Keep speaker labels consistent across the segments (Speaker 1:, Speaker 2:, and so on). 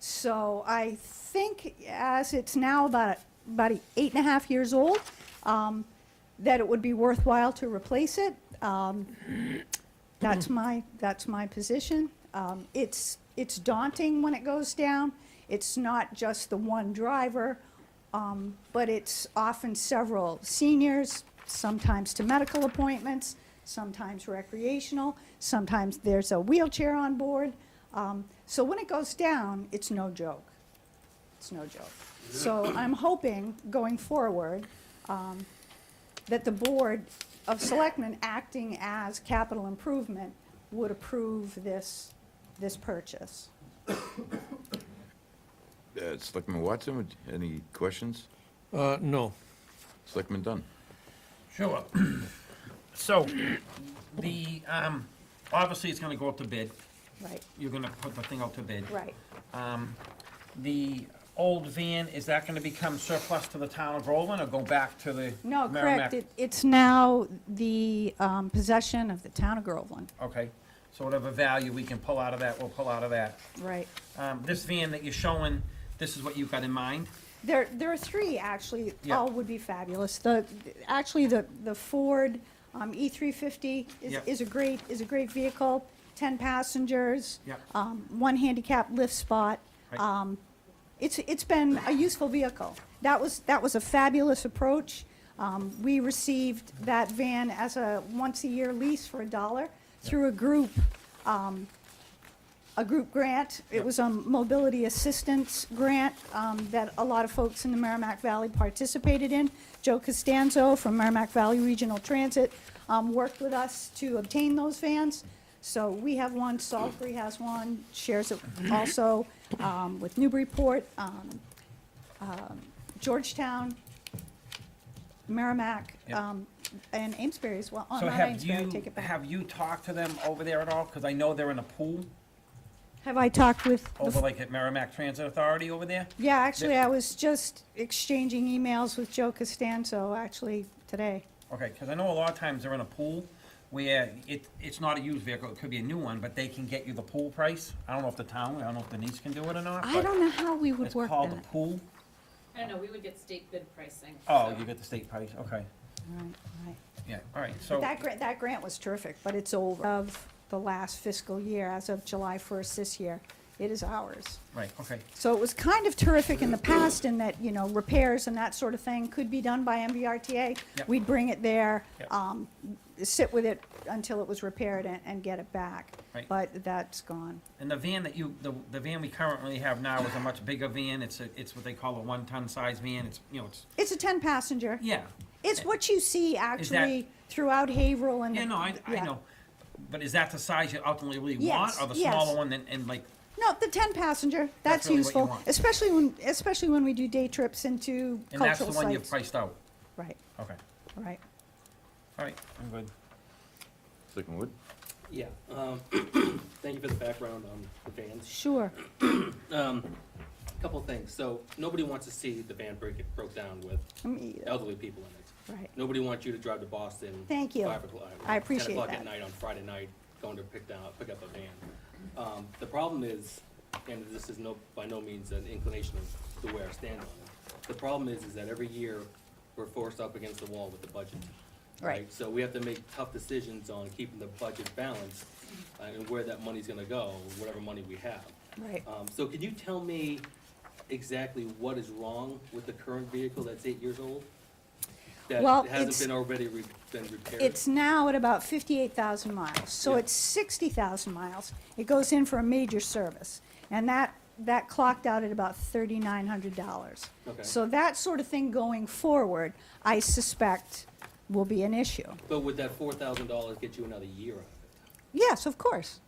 Speaker 1: So I think as it's now about, about eight and a half years old, um, that it would be worthwhile to replace it. Um, That's my, that's my position. Um, It's, it's daunting when it goes down. It's not just the one driver, um, but it's often several seniors, sometimes to medical appointments, sometimes recreational, sometimes there's a wheelchair on board. Um, So when it goes down, it's no joke. It's no joke. So I'm hoping, going forward, um, that the Board of Selectmen, acting as capital improvement, would approve this, this purchase.
Speaker 2: Uh, Selectman Watson, would- any questions?
Speaker 3: Uh, no.
Speaker 2: Selectman Dunn?
Speaker 4: Sure. So, the, um, obviously, it's gonna go up to bid.
Speaker 1: Right,
Speaker 4: You're gonna put the thing out to bid.
Speaker 1: right.
Speaker 4: Um, the old van, is that gonna become surplus to the town of Groveland or go back to the
Speaker 1: No,
Speaker 4: Merrimack?
Speaker 1: correct. It- It's now the um, possession of the town of Groveland.
Speaker 4: Okay, so whatever value we can pull out of that, we'll pull out of that.
Speaker 1: Right.
Speaker 4: Um, this van that you're showing, this is what you've got in mind?
Speaker 1: There, there are three, actually,
Speaker 4: Yeah.
Speaker 1: all would be fabulous. The, actually, the, the Ford um, E350 is,
Speaker 4: Yep.
Speaker 1: is a great, is a great vehicle, 10 passengers.
Speaker 4: Yep.
Speaker 1: um, One handicap lift spot.
Speaker 4: Right.
Speaker 1: Um, It's, it's been a useful vehicle. That was, that was a fabulous approach. Um, We received that van as a once-a-year lease for a dollar through a group, um, a group grant. It
Speaker 4: Yep.
Speaker 1: was a mobility assistance grant um, that a lot of folks in the Merrimack Valley participated in. Joe Costanzo from Merrimack Valley Regional Transit um, worked with us to obtain those vans. So we have one, Salisbury has one, shares it also um, with Newburyport, um, um, Georgetown, Merrimack,
Speaker 4: Yep.
Speaker 1: um, and Amesbury as well. Oh,
Speaker 4: So
Speaker 1: not
Speaker 4: have
Speaker 1: Amesbury, I
Speaker 4: you,
Speaker 1: take it back.
Speaker 4: have you talked to them over there at all? Cause I know they're in a pool
Speaker 1: Have I talked with the
Speaker 4: over like at Merrimack Transit Authority over there?
Speaker 1: Yeah, actually, I was just exchanging emails with Joe Costanzo, actually, today.
Speaker 4: Okay, because I know a lot of times they're in a pool where it, it's not a used vehicle, it could be a new one, but they can get you the pool price. I don't know if the town, I don't know if Denise can do it or not,
Speaker 1: I
Speaker 4: but
Speaker 1: don't know how we would
Speaker 4: it's
Speaker 1: work
Speaker 4: called a
Speaker 1: that.
Speaker 4: pool.
Speaker 5: I don't know, we would get state bid pricing.
Speaker 4: Oh,
Speaker 5: so-
Speaker 4: you get the state price, okay,
Speaker 1: Right, right.
Speaker 4: yeah, all right, so,
Speaker 1: But that grant, that grant was terrific, but it's over of the last fiscal year, as of July 1st this year. It is ours.
Speaker 4: right, okay,
Speaker 1: So it was kind of terrific in the past in that, you know, repairs and that sort of thing could be done by MVRTA.
Speaker 4: Yep.
Speaker 1: We'd bring it there,
Speaker 4: Yep.
Speaker 1: um, sit with it until it was repaired and, and get it back.
Speaker 4: Right.
Speaker 1: But that's gone.
Speaker 4: and the van that you, the, the van we currently have now is a much bigger van, it's a, it's what they call a one-ton size van, it's, you know, it's,
Speaker 1: It's a 10-passenger.
Speaker 4: yeah.
Speaker 1: It's what you see actually throughout Haverhill and.
Speaker 4: Yeah, no, I, I
Speaker 1: yeah.
Speaker 4: know, but is that the size you ultimately really
Speaker 1: Yes,
Speaker 4: want, or the
Speaker 1: yes.
Speaker 4: smaller one, and, and like,
Speaker 1: No, the ten passenger, that's
Speaker 4: That's really what you
Speaker 1: useful,
Speaker 4: want.
Speaker 1: especially when, especially when we do day trips into
Speaker 4: and that's the
Speaker 1: cultural
Speaker 4: one you've
Speaker 1: sites.
Speaker 4: priced out?
Speaker 1: Right,
Speaker 4: Okay,
Speaker 1: right.
Speaker 4: all right, I'm good.
Speaker 2: Selectman Wood?
Speaker 6: Yeah, um, thank you for the background on the vans.
Speaker 1: Sure,
Speaker 6: Um, couple things, so nobody wants to see the van break, broke down with
Speaker 1: Me either.
Speaker 6: elderly people in it.
Speaker 1: right.
Speaker 6: Nobody wants you to drive to Boston.
Speaker 1: Thank you.
Speaker 6: five o'clock-
Speaker 1: I appreciate
Speaker 6: Ten o'clock
Speaker 1: that.
Speaker 6: at night on Friday night, going to pick down, pick up a van. Um, the problem is, and this is no, by no means an inclination of the way I stand on it. The problem is, is that every year, we're forced up against the wall with the budget.
Speaker 1: Right.
Speaker 6: So we have to make tough decisions on keeping the budget balanced, uh, and where that money's gonna go, whatever money we have.
Speaker 1: Right.
Speaker 6: Um, so can you tell me exactly what is wrong with the current vehicle that's eight years old? That
Speaker 1: Well,
Speaker 6: hasn't
Speaker 1: it's-
Speaker 6: been already re- been repaired?
Speaker 1: It's now at about fifty-eight thousand miles, so
Speaker 6: Yeah.
Speaker 1: it's sixty thousand miles. It goes in for a major service, and that, that clocked out at about thirty-nine hundred dollars.
Speaker 6: Okay.
Speaker 1: So that sort of thing going forward, I suspect will be an issue.
Speaker 6: But would that four thousand dollars get you another year out of it?
Speaker 1: Yes, of course,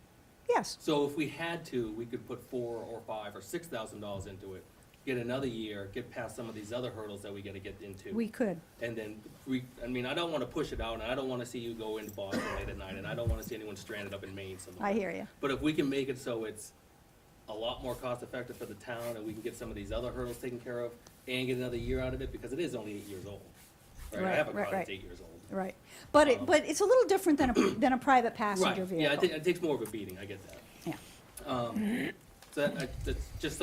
Speaker 1: yes.
Speaker 6: So if we had to, we could put four or five or six thousand dollars into it, get another year, get past some of these other hurdles that we gotta get into.
Speaker 1: We could,
Speaker 6: And then we, I mean, I don't wanna push it out, and I don't wanna see you go into Boston late at night, and I don't wanna see anyone stranded up in Maine somewhere.
Speaker 1: I hear you.
Speaker 6: But if we can make it so it's a lot more cost effective for the town and we can get some of these other hurdles taken care of and get another year out of it, because it is only eight years old. Right, I
Speaker 1: Right,
Speaker 6: have a
Speaker 1: right,
Speaker 6: car that's
Speaker 1: right.
Speaker 6: eight years old.
Speaker 1: Right, but it,
Speaker 6: Um,
Speaker 1: but it's a little different than a, than a private passenger
Speaker 6: Right, yeah,
Speaker 1: vehicle.
Speaker 6: it ta- it takes more of a beating, I get that.
Speaker 1: Yeah.
Speaker 6: Um, so that, I- that's just